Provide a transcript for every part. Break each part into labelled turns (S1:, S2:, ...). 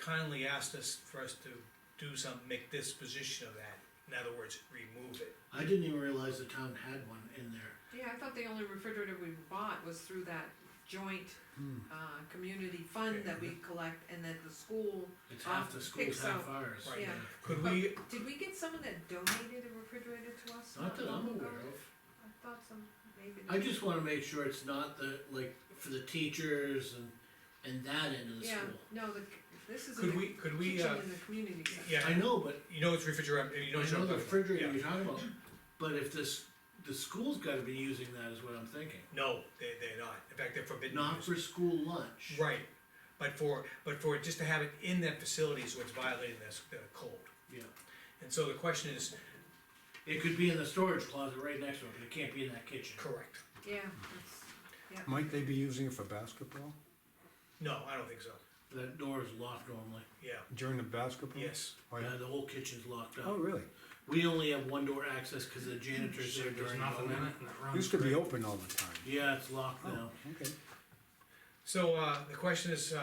S1: kindly asked us for us to do something, make this position of that, in other words, remove it.
S2: I didn't even realize the town had one in there.
S3: Yeah, I thought the only refrigerator we bought was through that joint, uh, community fund that we collect, and that the school,
S2: It's half the
S3: Um,
S2: school's
S3: so-
S2: half ours.
S1: Right.
S3: yeah.
S1: Could we,
S3: Did we get someone that donated a refrigerator to us?
S2: Not that I'm
S3: long ago?
S2: aware of.
S3: I thought some, maybe.
S2: I just wanna make sure it's not the, like, for the teachers and, and that end of the
S3: Yeah,
S2: school.
S3: no, the, this is in
S1: could we,
S3: the
S1: could we,
S3: kitchen
S1: uh,
S3: in the community center.
S1: yeah,
S2: I know, but
S1: you know it's refrigerator, you know
S2: I
S1: it's.
S2: know the refrigerator
S1: Yeah.
S2: you're talking about, but if this, the school's gotta be using that is what I'm thinking.
S1: No, they, they're not, in fact, they're forbidden. to
S2: Not
S1: use.
S2: for school lunch.
S1: Right, but for, but for, just to have it in that facility is what's violating this, the code.
S2: Yeah,
S1: And so the question is,
S2: it could be in the storage closet right next to it, but it can't be in that kitchen.
S1: correct,
S3: Yeah, that's, yeah.
S4: Might they be using it for basketball,
S1: no, I don't think so,
S2: That door is locked normally,
S1: yeah,
S4: during the basketball?
S1: yes,
S4: Oh, yeah.
S2: yeah, the whole kitchen's locked
S4: Oh,
S2: up.
S4: really?
S2: We only have one door access, cause the janitor's there
S5: There's
S2: during the
S5: nothing in it
S2: morning.
S5: and it runs.
S4: Used to be
S5: great.
S4: open all the time.
S2: Yeah, it's locked
S3: Oh.
S2: now.
S4: Okay.
S1: so, uh, the question is,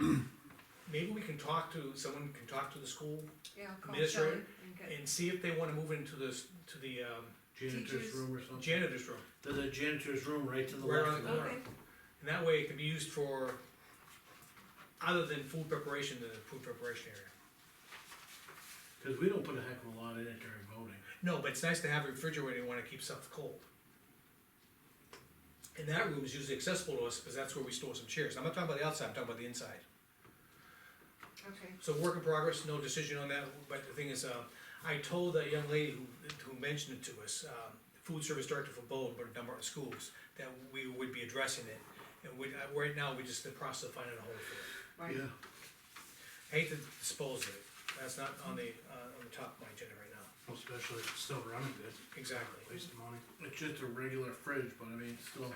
S1: um. Maybe we can talk to, someone can talk to the school
S3: Yeah, I'll call Shelley
S1: Administrator
S3: and get,
S1: and see if they wanna move into this, to the, um,
S2: Janitor's
S3: Teachers.
S2: room or something.
S1: janitor's room.
S2: There's a janitor's room right to the
S1: Right
S2: left
S1: on
S2: of
S1: the
S2: that.
S3: okay,
S1: And that way it can be used for, other than food preparation, the food preparation area.
S2: Cause we don't put a heck of a lot in it during voting.
S1: No, but it's nice to have a refrigerator, you wanna keep stuff cold. And that room is usually accessible to us, because that's where we store some chairs, I'm not talking about the outside, I'm talking about the inside.
S2: uh,
S3: okay,
S1: So work in progress, no decision on that, but the thing is, uh, I told that young lady who, who mentioned it to us, um, food service director for Bowden, but a number of schools, that we would be addressing it. And we, uh, right now, we're just in the process of finding a home for it.
S3: right.
S1: Hate to dispose of it, that's not on the, uh, on the top of my agenda right now,
S5: Well, Especially if it's still running good,
S1: exactly.
S5: waste of money.
S2: It's just a regular fridge, but I mean, it's still,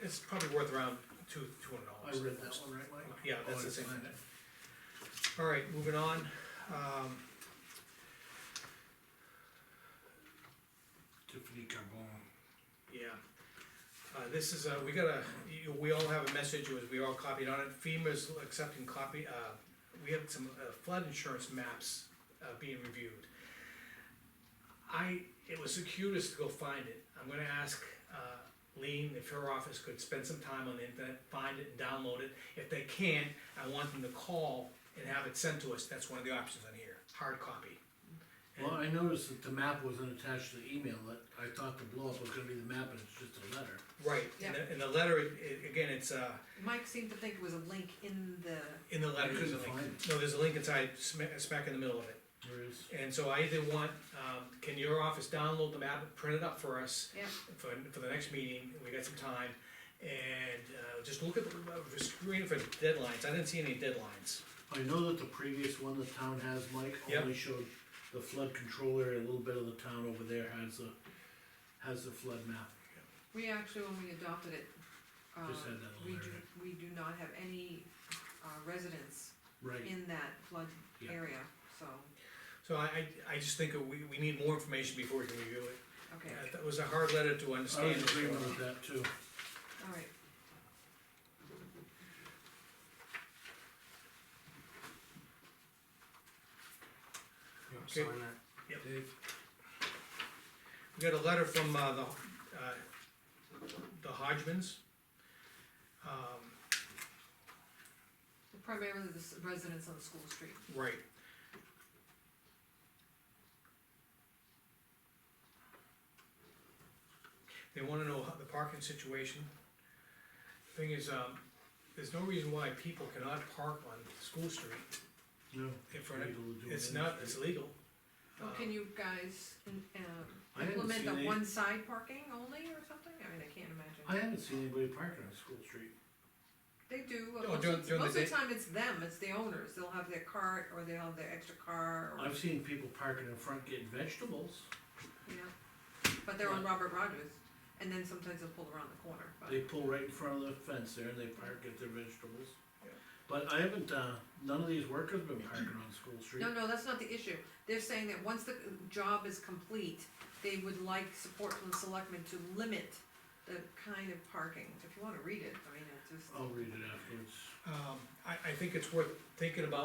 S1: It's probably worth around two, two
S2: I
S1: hundred dollars.
S2: read that one right, Mike?
S1: Yeah,
S2: Oh,
S1: that's
S2: I
S1: the same
S2: find
S1: thing.
S2: it.
S1: All right, moving on, um,
S2: Tiffany Carbone.
S1: yeah. Uh, this is, uh, we got a, you, we all have a message, it was, we all copied on it, FEMA's accepting copy, uh, we have some uh, flood insurance maps, uh, being reviewed. I, it was the cutest to go find it, I'm gonna ask, uh, Lean if her office could spend some time on the internet, find it and download it. If they can't, I want them to call and have it sent to us, that's one of the options on here, hard copy.
S2: Well, I noticed that the map wasn't attached to the email, that I thought the blow up was gonna be the map, and it's just a letter.
S1: Right, and the, and the letter, it, it- again, it's, uh,
S3: Mike seemed to think it was a link in the,
S1: in the letter, there's a
S2: couldn't
S1: link.
S2: find
S1: No, there's a link inside, smack, smack in the middle of it.
S2: There is,
S1: And so I either want, um, can your office download the map, print it up for us
S3: yeah,
S1: for, for the next meeting, we got some time. And, uh, just look at, the uh, screen for deadlines, I didn't see any deadlines.
S2: I know that the previous one the town has, Mike,
S1: Yep.
S2: only showed the flood control area, a little bit of the town over there has the, has the flood map.
S3: we actually, when we adopted it, uh,
S2: Just had that on
S3: we
S2: there,
S3: do, we do not have any, uh, residents
S2: Right,
S3: in that flood
S2: Yeah.
S3: area, so,
S1: So I, I, I just think that we, we need more information before we can review it.
S3: okay,
S1: Uh, That was a hard letter to
S2: I
S1: understand.
S2: was agreeing with that too.
S3: all right.
S5: You know,
S1: Okay.
S5: sign that.
S1: Yep.
S5: Dave,
S1: We got a letter from, uh, the, uh, the Hodgmans. Um,
S3: Primarily the s- residents on School Street,
S1: Right. They wanna know how the parking situation. Thing is, um, there's no reason why people cannot park on School Street.
S2: No.
S1: If we're not-
S2: legal to do it
S1: It's
S2: in the
S1: not,
S2: street.
S1: it's illegal.
S3: well,
S1: Uh,
S3: can you guys, um,
S2: I haven't
S3: implement
S2: seen
S3: the
S2: any-
S3: one side parking only or something, I mean, I can't imagine.
S2: I haven't seen anybody parking on School Street.
S3: They do,
S1: Oh,
S3: uh, most
S1: during-
S3: of,
S1: during the
S3: most of the
S1: day?
S3: time it's them, it's the owners, they'll have their cart, or they'll have their extra car, or,
S2: I've seen people parking in front getting vegetables.
S3: you know, but they're on Robert Rogers, and then sometimes they'll pull around the corner, but,
S2: They pull right in front of the fence there and they park, get their vegetables.
S1: Yeah.
S2: But I haven't, uh, none of these workers been parking on School Street.
S3: no, no, that's not the issue, they're saying that once the job is complete, they would like support from the selectmen to limit the kind of parking, if you wanna read it, I mean, it's just.
S2: I'll read it afterwards.
S1: Um, I, I think it's worth thinking about